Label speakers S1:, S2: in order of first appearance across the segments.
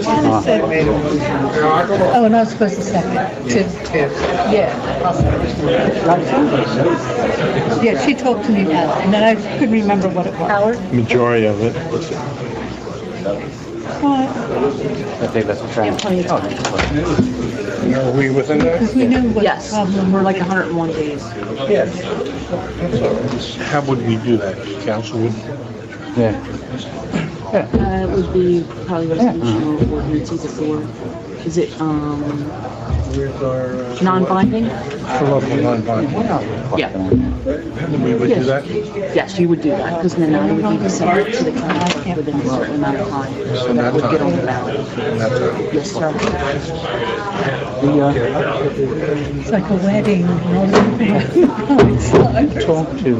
S1: Donna said- Oh, and I was supposed to second. To- Yeah, I'll second. Yeah, she talked to me about it, and then I couldn't remember what it was. Howard?
S2: Majority of it.
S3: I think that's a trend.
S2: Are we within that?
S1: Because we knew what the
S4: Yes,
S1: problem
S4: we're
S1: was.
S4: like 101 days.
S2: How would we do that? Council would?
S3: Yeah.
S4: Uh, It would be probably resolution or ordinance either for, is it, um, non-binding?
S2: For local non-binding.
S4: Yeah.
S2: We would do that?
S4: Yes, you would do that, because then I would need to send it to the county within a certain amount of time. So that would get on the ballot. Yes, sir.
S1: It's like a wedding. and all that. It's like-
S3: Talk to,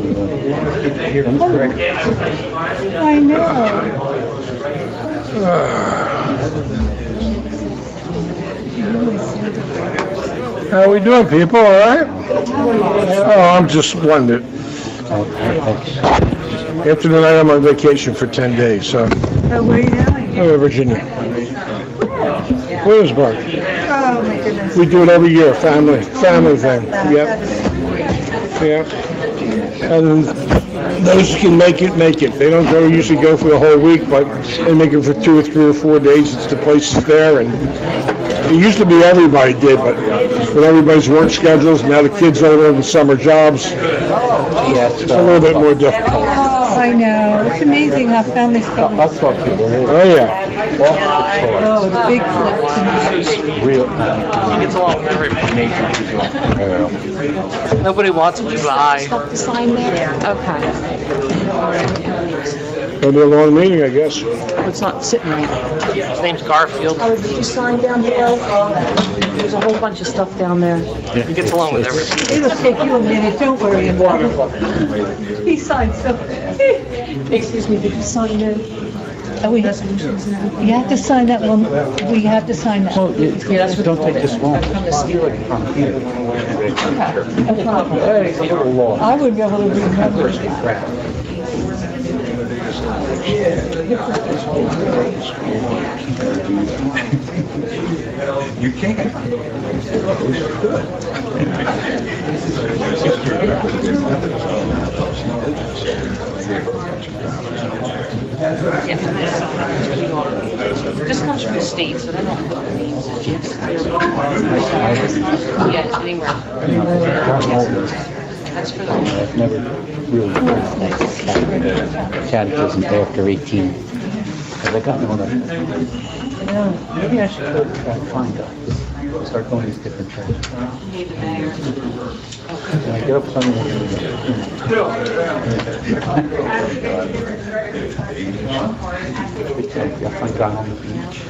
S3: uh,
S1: I know.
S2: How we doing, people, all right? Oh, I'm just wondering. After tonight, I'm on vacation for 10 days, so,
S1: Oh, where are you going?
S2: oh, Virginia. Williamsburg.
S1: Oh, my goodness.
S2: We do it every year, family, family thing, yep. Yeah. And those who can make it, make it. They don't go, usually go for the whole week, but they make it for two or three or four days. It's the place is there and it used to be everybody did, but with everybody's work schedules, now the kids are in summer jobs, it's
S3: yes,
S2: a
S3: uh,
S2: little bit more difficult.
S1: I know. It's amazing how families go.
S3: I'll talk to you.
S2: Oh, yeah.
S1: Oh, the big flip.
S3: Real. uh,
S5: It's all memory nature. Nobody wants to lie.
S4: Stop the sign there? Okay.
S2: It'll be a long meeting, I guess.
S4: It's not sitting right.
S5: His name's Garfield.
S4: Oh, did you sign down below? There's a whole bunch of stuff down there.
S5: He gets along with everyone.
S1: It'll take you a minute, don't worry about it. He signed so.
S4: Excuse me, did you sign there?
S1: Oh, we, you have to sign that one, we have to sign that.
S3: Well, it- don't take this long. From here.
S1: No problem.
S3: Hey, it's a little long.
S1: I would be able to remember.
S4: This comes from the state, so they don't know the names of gyms. Yeah, anywhere.
S3: Got older.
S4: That's for
S3: and
S4: the.
S3: I've never really heard like catechism after 18. Because I got one of them. Maybe I should go try to find God. Start going to these different churches. And I get up Sunday morning. and go, "Hmm." Pretend I find God on the beach.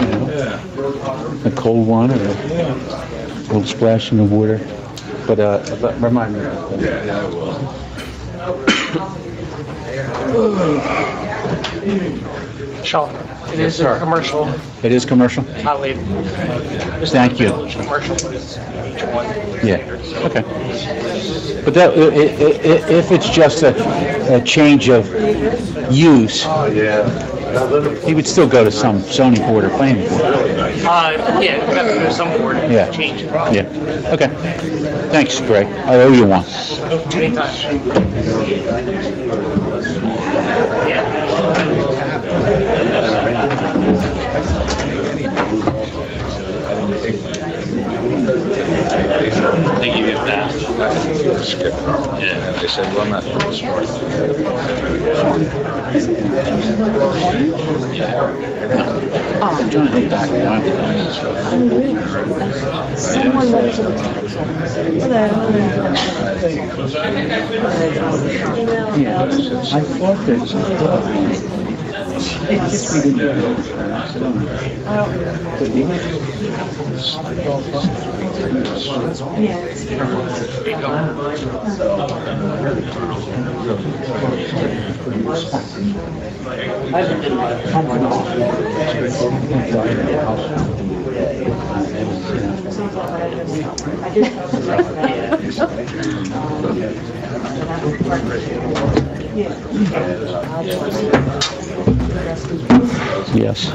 S3: You know, a cold one or a little splash in the water. But uh, but remind me. of that.
S5: Sean, it is a commercial.
S3: It is commercial?
S5: I'll leave.
S3: Thank you.
S5: Commercial. Uh, One.
S3: Yeah, okay. But that, i- i- i- if it's just a, a change of use, he would still go to some zoning board or planning board.
S5: Uh, yeah, we have to do some word
S3: Yeah.
S5: change.
S3: Yeah, okay. Thanks, Greg. I owe you one.
S5: Anytime.
S6: They give you that. Skip it. Yeah, they said, well, not for this morning.
S4: Oh.
S3: I'm trying to think back.
S4: Someone went to the tax
S3: Yeah, I thought that. It's just we didn't know. But you- Yes.